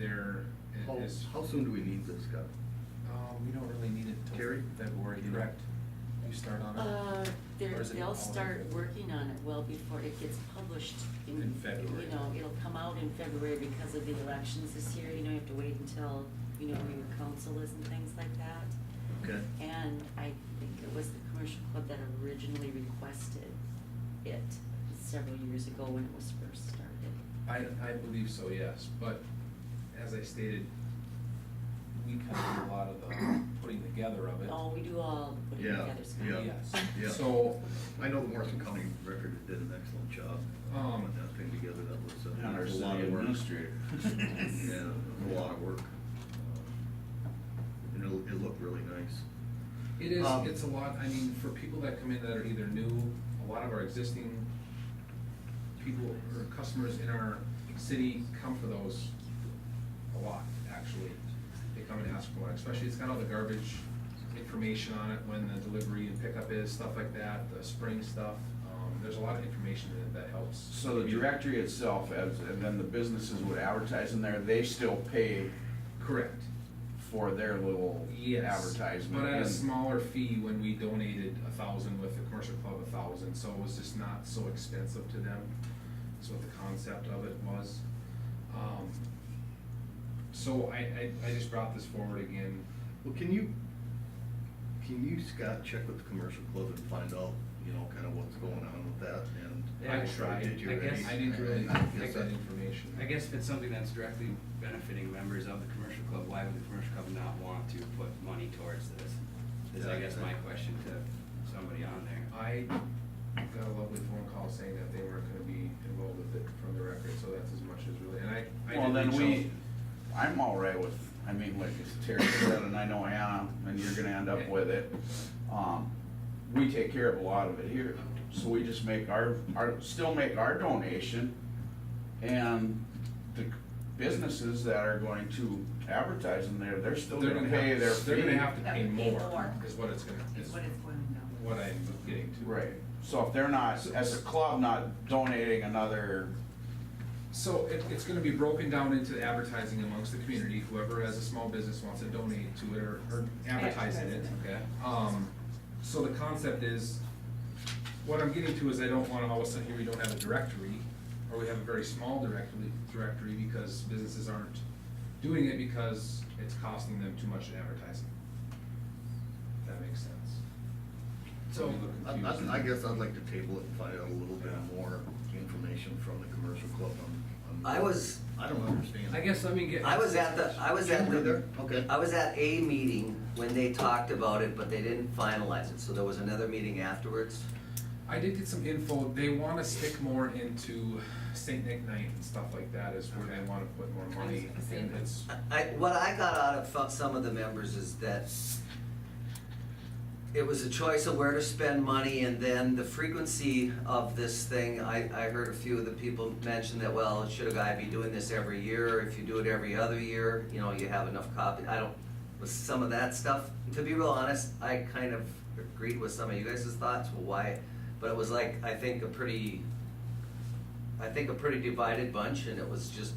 there i- How, is. how soon do we need this, Scott? Uh, we don't really need it Terry? till February, do we? Correct. You start on it? Uh, Or they're, is it they'll all- start working on it well before it gets published in, In February. you know, it'll come out in February because of the elections this year, you know, you have to wait until, you know, where your council is and things like that. Okay. And I think it was the commercial club that originally requested it several years ago when it was first started. I, I believe so, yes, but as I stated, we kind of do a lot of the putting together of it. Oh, we do all put it Yeah, together, Scott. yeah, yeah. Yes, so, I know the Morrison County Record did an excellent job Um, putting that thing together, that was a And our a lot city of work. administrator. Yeah, it was a lot of work. Uh, And it, it looked really nice. it is, Um, it's a lot, I mean, for people that come in that are either new, a lot of our existing people or customers in our city come for those a lot, actually. They come and ask for one, especially it's got all the garbage information on it, when the delivery and pickup is, stuff like that, the spring stuff. Um, there's a lot of information in it that helps. So the directory itself, as, and then the businesses would advertise in there, they still pay Correct. for their little Yes. advertisement. But at a and- smaller fee when we donated a thousand with the commercial club a thousand, so it was just not so expensive to them. That's what the concept of it was. Um, so I, I, I just brought this forward again. Well, can you, can you, Scott, check with the commercial club and find out, you know, kind of what's going on with that and? I Yeah, tried, Did you I already- guess, I didn't really I guess get that that- information. I guess if it's something that's directly benefiting members of the commercial club, why would the commercial club not want to put money towards this? Is I guess my question to somebody on there. I got a lovely phone call saying that they weren't gonna be involved with it from the record, so that's as much as really, and I, I did Well, then reach we, out. I'm all right with, I mean, like as Terry said, and I know Anna, and you're gonna end up with it. Um, we take care of a lot of it here, so we just make our, our, still make our donation. And the businesses that are going to advertise in there, they're still They're gonna pay have- their They're gonna fee. have to That pay would be more, more. is what it's gonna, is Is what it's going down. what I'm getting to. Right, so if they're not, as a club, not donating another, So it, it's gonna be broken down into advertising amongst the community, whoever has a small business wants to donate to it or, or advertise in it. Advertise Okay? Um, so the concept is, what I'm getting to is I don't wanna all of a sudden here we don't have a directory, or we have a very small directory, directory because businesses aren't doing it because it's costing them too much in advertising. If that makes sense. So, I, Confusing. I I guess I'd like to table it and find out a little bit Yeah. more information from the commercial club on. on- I was- I don't understand. I guess let me get. I was at the, I was at You were the, there? Okay. I was at a meeting when they talked about it, but they didn't finalize it, so there was another meeting afterwards. I did get some info. They want to stick more into Saint Nick Night and stuff like that is where they want to put more money. I was gonna And say. it's, I, what I got out of fo- some of the members is that it was a choice of where to spend money and then the frequency of this thing, I, I heard a few of the people mention that, well, should a guy be doing this every year? If you do it every other year, you know, you have enough copy, I don't, with some of that stuff, to be real honest, I kind of agreed with some of you guys' thoughts, well, why? But it was like, I think a pretty, I think a pretty divided bunch and it was just,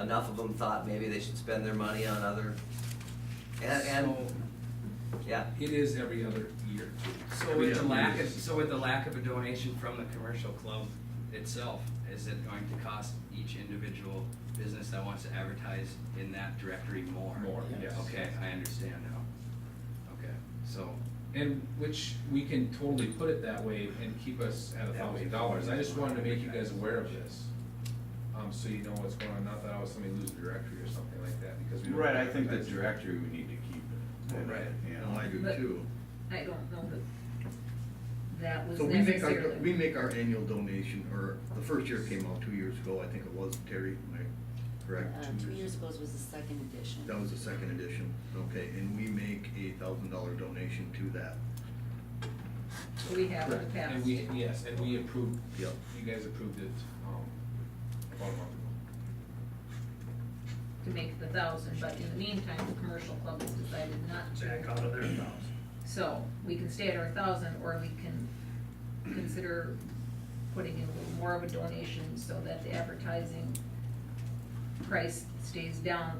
enough of them thought maybe they should spend their money on other, and, and, yeah. it is every other year. So with the lack of, so with the lack of a donation from the commercial club itself, is it going to cost each individual business that wants to advertise in that directory more? More, yes. Okay, I understand now. Okay, so, And which we can totally put it that way and keep us at a That way. thousand dollars. I just wanted to make you guys aware of this. Um, so you know what's going on. Not that I was somebody lose a directory or something like that because we. don't right, I think the advertise. directory we need to keep it. Right. Yeah. No, I do But- too. I don't know that that was So we make our, necessarily. we make our annual donation, or the first year it came out two years ago, I think it was, Terry, am I correct? Uh, two years ago was the second edition. That was the second edition, okay, and we make a thousand dollar donation to that. We have in the past. And we, yes, and we approved. Yep. You guys approved it, um, about a month ago. To make the thousand, but in the meantime, the commercial club has decided not to. Back out of their thousand. So, we can stay at our thousand, or we can consider putting in a little more of a donation so that the advertising price stays down